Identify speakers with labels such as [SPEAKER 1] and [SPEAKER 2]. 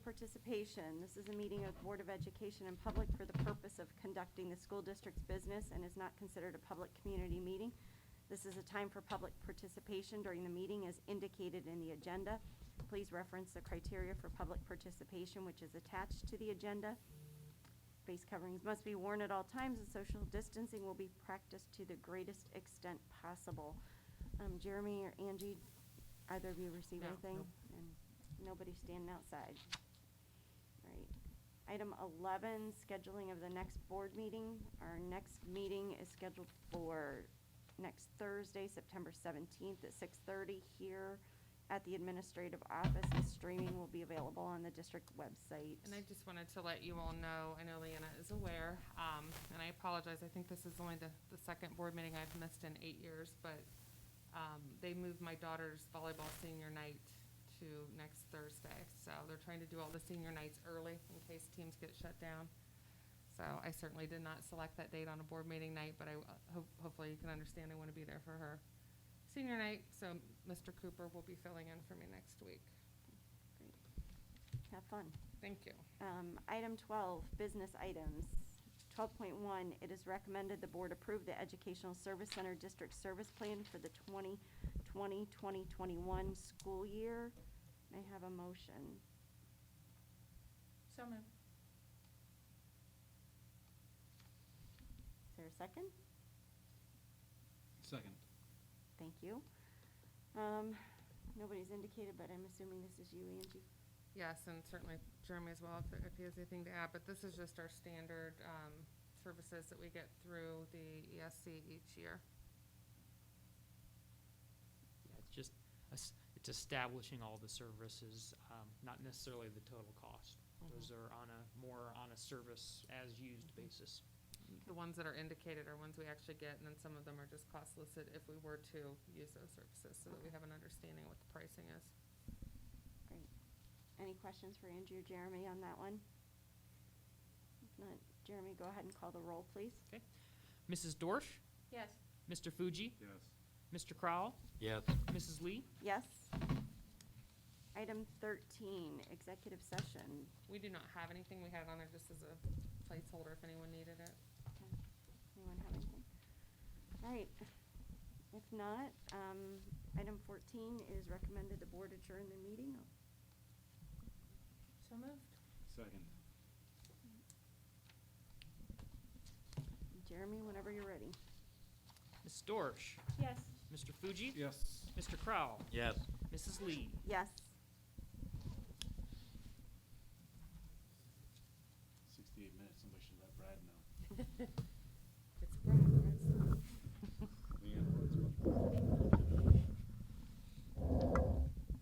[SPEAKER 1] participation. This is a meeting of the Board of Education in public for the purpose of conducting the school district's business and is not considered a public community meeting. This is a time for public participation during the meeting as indicated in the agenda. Please reference the criteria for public participation, which is attached to the agenda. Face coverings must be worn at all times, and social distancing will be practiced to the greatest extent possible. Um, Jeremy or Angie, either of you receive
[SPEAKER 2] No,
[SPEAKER 1] anything?
[SPEAKER 2] nope.
[SPEAKER 1] And nobody standing outside. Right. Item 11, scheduling of the next board meeting. Our next meeting is scheduled for next Thursday, September 17th at 6:30 here at the administrative office, and streaming will be available on the district website.
[SPEAKER 2] And I just wanted to let you all know, I know Leanna is aware, um, and I apologize, I think this is only the, the second board meeting I've missed in eight years, but, um, they moved my daughter's volleyball senior night to next Thursday, so they're trying to do all the senior nights early in case teams get shut down. So I certainly did not select that date on a board meeting night, but I, uh, hope, hopefully you can understand I want to be there for her senior night, so Mr. Cooper will be filling in for me next week.
[SPEAKER 1] Great. Have fun.
[SPEAKER 2] Thank you.
[SPEAKER 1] Um, Item 12, business items. 12.1, it is recommended the board approve the Educational Service Center District Service Plan for the 2020-2021 school year. May I have a motion?
[SPEAKER 3] So moved.
[SPEAKER 1] Is there a second?
[SPEAKER 4] Second.
[SPEAKER 1] Thank you. Um, Nobody's indicated, but I'm assuming this is you, Angie.
[SPEAKER 2] Yes, and certainly Jeremy as well, if if he has anything to add, but this is just our standard um, services that we get through the ESC each year.
[SPEAKER 5] Yeah, it's just, es- it's establishing all the services, um, not necessarily the total cost. Those
[SPEAKER 2] Mhm.
[SPEAKER 5] are on a, more on a service-as-used basis.
[SPEAKER 2] The ones that are indicated are ones we actually get, and then some of them are just cost listed if we were to use those services, so that we have an understanding of what the pricing is.
[SPEAKER 1] Great. Any questions for Angie or Jeremy on that one? If not, Jeremy, go ahead and call the roll, please.
[SPEAKER 5] Okay? Mrs. Dorsch,
[SPEAKER 3] Yes.
[SPEAKER 5] Mr. Fuji,
[SPEAKER 4] Yes.
[SPEAKER 5] Mr. Crowell,
[SPEAKER 6] Yes.
[SPEAKER 5] Mrs. Lee.
[SPEAKER 1] Yes. Item 13, executive session.
[SPEAKER 2] We do not have anything, we had it on there just as a placeholder if anyone needed it.
[SPEAKER 1] Okay. Anyone have anything? All right. If not, um, item 14 is recommended the board adjourn the meeting.
[SPEAKER 3] So moved.
[SPEAKER 4] Second.
[SPEAKER 1] Jeremy, whenever you're ready.
[SPEAKER 5] Mrs. Dorsch,
[SPEAKER 3] Yes.
[SPEAKER 5] Mr. Fuji.
[SPEAKER 4] Yes.
[SPEAKER 5] Mr. Crowell.
[SPEAKER 6] Yes.
[SPEAKER 5] Mrs. Lee.
[SPEAKER 1] Yes.
[SPEAKER 4] Sixty-eight minutes, somebody should let Brad know.